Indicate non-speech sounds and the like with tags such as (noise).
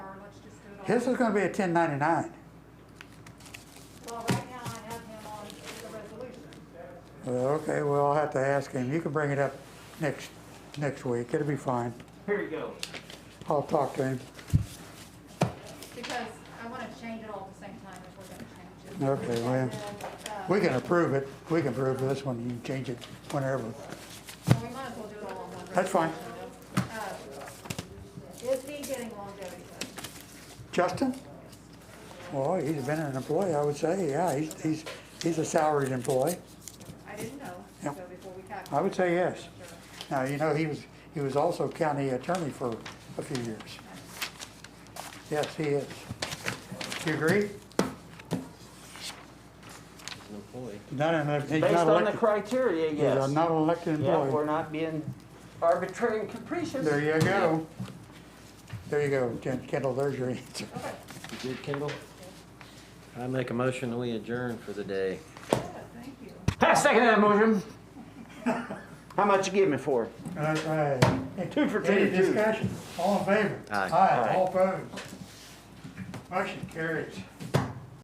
This is gonna be a ten ninety-nine. Well, right now I have him on the resolution. Well, okay, well, I'll have to ask him. You can bring it up next, next week. It'll be fine. Here you go. I'll talk to him. Because I want to change it all at the same time if we're going to change it. Okay, well, And then, uh, we can approve it. We can approve this one. You can change it whenever. well, uh, We might as well do it all on one. That's fine. resolution. Uh, Is he getting longevity pay? Justin? Well, he's been an employee, I would say. Yeah, he's, he's, he's a salaried employee. I didn't know, so Yep. before we I calculate. would say yes. Now, you know, he was, he was also county attorney for a few years. Yes, he is. You agree? Not an, he's Based not on the elected. criteria, He's a yes. not an elected Yeah, we're employee. not being arbitrary and capricious. There you go. There you go, Ken- Kendall, there's your answer. Okay. You good, Kendall? I make a motion that we adjourn for the day. Yeah, Thank you. Pass second that (laughs) motion. How much you give me for? it? That's right. Two for two, Any two. discussion? All in favor? Aye. Aye, all opposed. Motion carries.